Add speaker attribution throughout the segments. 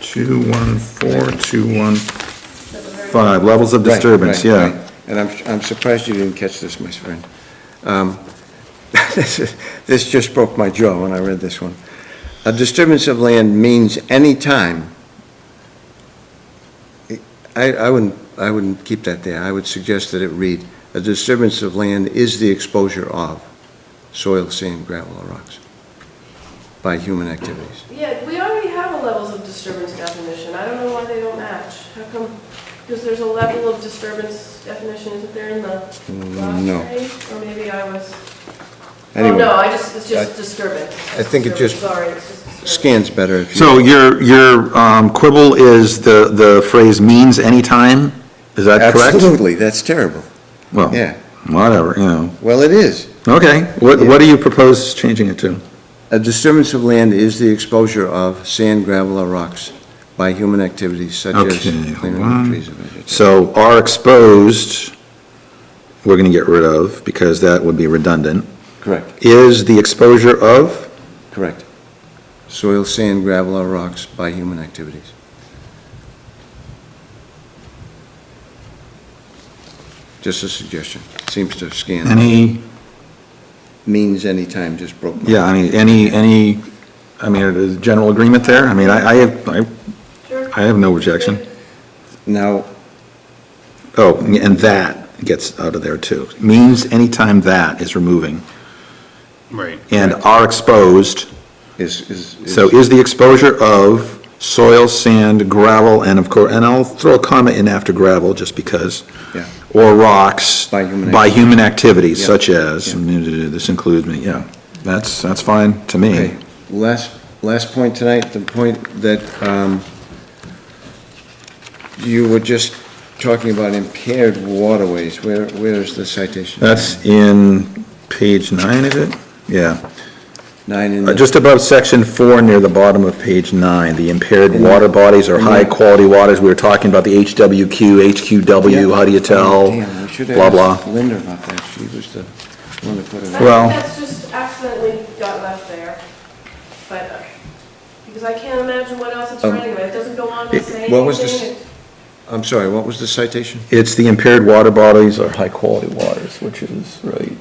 Speaker 1: Two, one, four, two, one, five, levels of
Speaker 2: Right,
Speaker 1: disturbance,
Speaker 2: right,
Speaker 1: yeah.
Speaker 2: right. And I'm, I'm surprised you didn't catch this, my friend. Um, This is- this just broke my jaw when I read this one. A disturbance of land means any time. I, I wouldn't, I wouldn't keep that there. I would suggest that it read, a disturbance of land is the exposure of soil, sand, gravel, or rocks by human activities.
Speaker 3: Yeah, we already have a levels of disturbance definition. I don't know why they don't match. How come, because there's a level of disturbance definition, isn't there in the last
Speaker 2: Mm, no.
Speaker 3: grade? Or maybe I was, oh,
Speaker 2: Anyway,
Speaker 3: no, I just, it's
Speaker 2: I-
Speaker 3: just disturbance. It's
Speaker 2: I think it
Speaker 3: disturbance.
Speaker 2: just
Speaker 3: Sorry, it's just disturbance.
Speaker 2: Scans better if you.
Speaker 1: So your, your um, quibble is the, the phrase means anytime, is that correct? Oh.
Speaker 2: Absolutely, that's terrible.
Speaker 1: Well,
Speaker 2: Yeah.
Speaker 1: Whatever, you know,
Speaker 2: Well, it is.
Speaker 1: okay, what, what do you propose changing it to?
Speaker 2: A disturbance of land is the exposure of sand, gravel, or rocks by human activities such as
Speaker 1: Okay, hold
Speaker 2: clearing
Speaker 1: on.
Speaker 2: of trees or vegetation.
Speaker 1: So are exposed, we're gonna get rid of, because that would be redundant,
Speaker 2: Correct,
Speaker 1: is the exposure of,
Speaker 2: correct. Soil, sand, gravel, or rocks by human activities. Just a suggestion. Seems to scan.
Speaker 1: any,
Speaker 2: Means anytime, just broke my.
Speaker 1: yeah, I mean, any, any, I mean, is general agreement there? I mean, I, I have, I,
Speaker 3: Sure.
Speaker 1: I have no objection.
Speaker 2: Now,
Speaker 1: Oh, and that gets out of there too. Means anytime that is removing.
Speaker 4: Right.
Speaker 1: And are exposed,
Speaker 2: is, is.
Speaker 1: so is the exposure of soil, sand, gravel, and of course, and I'll throw a comment in after gravel just because.
Speaker 2: Yeah.
Speaker 1: Or rocks.
Speaker 2: By human
Speaker 1: By human activities
Speaker 2: Yeah.
Speaker 1: such as,
Speaker 2: Yeah.
Speaker 1: this includes me, yeah. That's, that's fine to me.
Speaker 2: Okay, last, last point tonight, the point that um, you were just talking about impaired waterways. Where, where is the citation?
Speaker 1: That's in page nine, is it? Yeah.
Speaker 2: Nine in
Speaker 1: Uh,
Speaker 2: the...
Speaker 1: Just above section four, near the bottom of page nine, the impaired
Speaker 2: In the-
Speaker 1: water bodies or
Speaker 2: in the-
Speaker 1: high-quality waters, we were talking about the HWQ, HQW, how do you tell,
Speaker 2: Oh, Damn, we should have
Speaker 1: blah, blah.
Speaker 2: asked Linda about that. She was the one that put it
Speaker 3: I
Speaker 2: on.
Speaker 1: Well-
Speaker 3: think that's just accidentally got left there, but, uh, because I can't imagine what else it's
Speaker 2: Um,
Speaker 3: running with. It doesn't go on
Speaker 1: it-
Speaker 3: to say
Speaker 2: what was this-
Speaker 3: anything.
Speaker 2: I'm sorry, what was the citation?
Speaker 1: It's the impaired water bodies or high-quality waters, which is right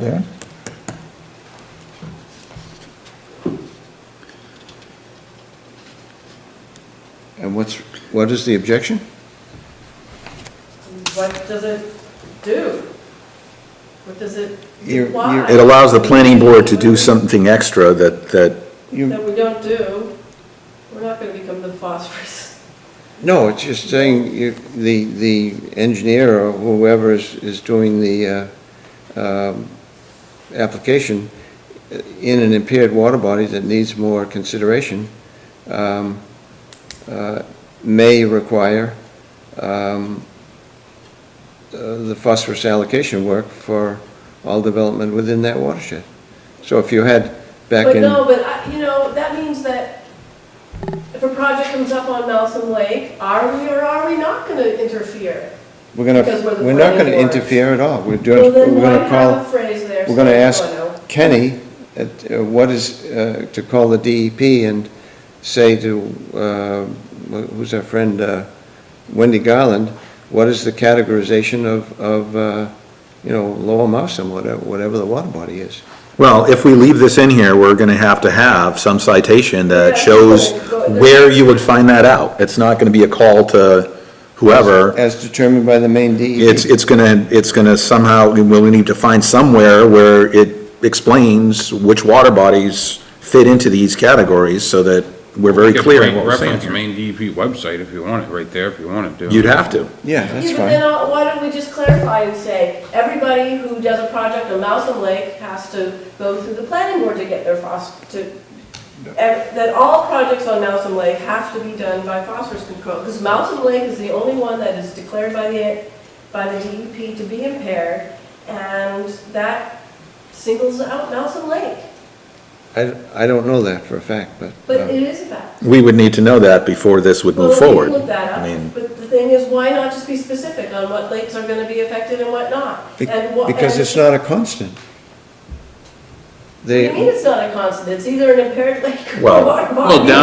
Speaker 1: there.
Speaker 2: And what's, what is the objection?
Speaker 3: What does it do? What does it,
Speaker 2: You're- you're-
Speaker 3: why?
Speaker 1: It allows the planning board to do something extra that, that,
Speaker 2: You-
Speaker 3: That we don't do, we're not gonna become the phosphorus.
Speaker 2: No, it's just saying you- the, the engineer or whoever is, is doing the uh, um, application uh, in an impaired water body that needs more consideration um, uh, may require um, uh, the phosphorus allocation work for all development within that watershed. So if you had back
Speaker 3: But
Speaker 2: in...
Speaker 3: no, but, I- you know, that means that if a project comes up on Nelson Lake, are we or are we not gonna interfere?
Speaker 2: We're gonna,
Speaker 3: Because we're the
Speaker 2: we're not gonna
Speaker 3: planning board.
Speaker 2: interfere at all. We're
Speaker 3: Well,
Speaker 2: doing,
Speaker 3: then
Speaker 2: we're
Speaker 3: why
Speaker 2: gonna
Speaker 3: have a
Speaker 2: call,
Speaker 3: phrase there?
Speaker 2: we're gonna
Speaker 3: saying,
Speaker 2: ask
Speaker 3: "Oh,
Speaker 2: Kenny at, uh, what is, uh, to call the DEP and say to, uh, wh- who's our friend, uh, Wendy Garland, what is the categorization of, of, uh, you know, Lower Mousam, whatever, whatever the water body is?
Speaker 1: well, if we leave this in here, we're gonna have to have some citation that
Speaker 3: Yeah,
Speaker 1: shows
Speaker 3: go- go-
Speaker 1: where you would find that out. It's not gonna be a call to whoever.
Speaker 2: As determined by the main E DEP.
Speaker 1: It's, it's gonna, it's gonna somehow, we'll need to find somewhere where it explains which water bodies fit into these categories so that we're very clear in what we're saying
Speaker 4: Reference
Speaker 1: here.
Speaker 4: main DEP website if you want it, right there, if you wanted to.
Speaker 1: You'd have to.
Speaker 2: Yeah, that's
Speaker 3: Yeah, but then
Speaker 2: fine.
Speaker 3: uh, why don't we just clarify and say, everybody who does a project on Mousom Lake has to go through the planning board to get their phos, to, ev- that all projects on Mousom Lake have to be done by phosphorus control, because Mousom Lake is the only one that is declared by the, by the DEP to be impaired, and that singles out Mousom Lake,
Speaker 2: I, I don't know that for a fact, but.
Speaker 3: but
Speaker 2: uh,
Speaker 3: it is a fact.
Speaker 1: We would need to know that before this would move
Speaker 3: Well, we can
Speaker 1: forward.
Speaker 3: Look that
Speaker 1: I mean,
Speaker 3: up, but the thing is, why not just be specific on what lakes are gonna be affected and what not?
Speaker 2: be-
Speaker 3: And what-
Speaker 2: Because
Speaker 3: and-
Speaker 2: it's not a constant.
Speaker 3: What do you mean
Speaker 2: They,
Speaker 3: it's not a constant? It's either an impaired lake or
Speaker 1: Well-
Speaker 3: what?
Speaker 4: Well, down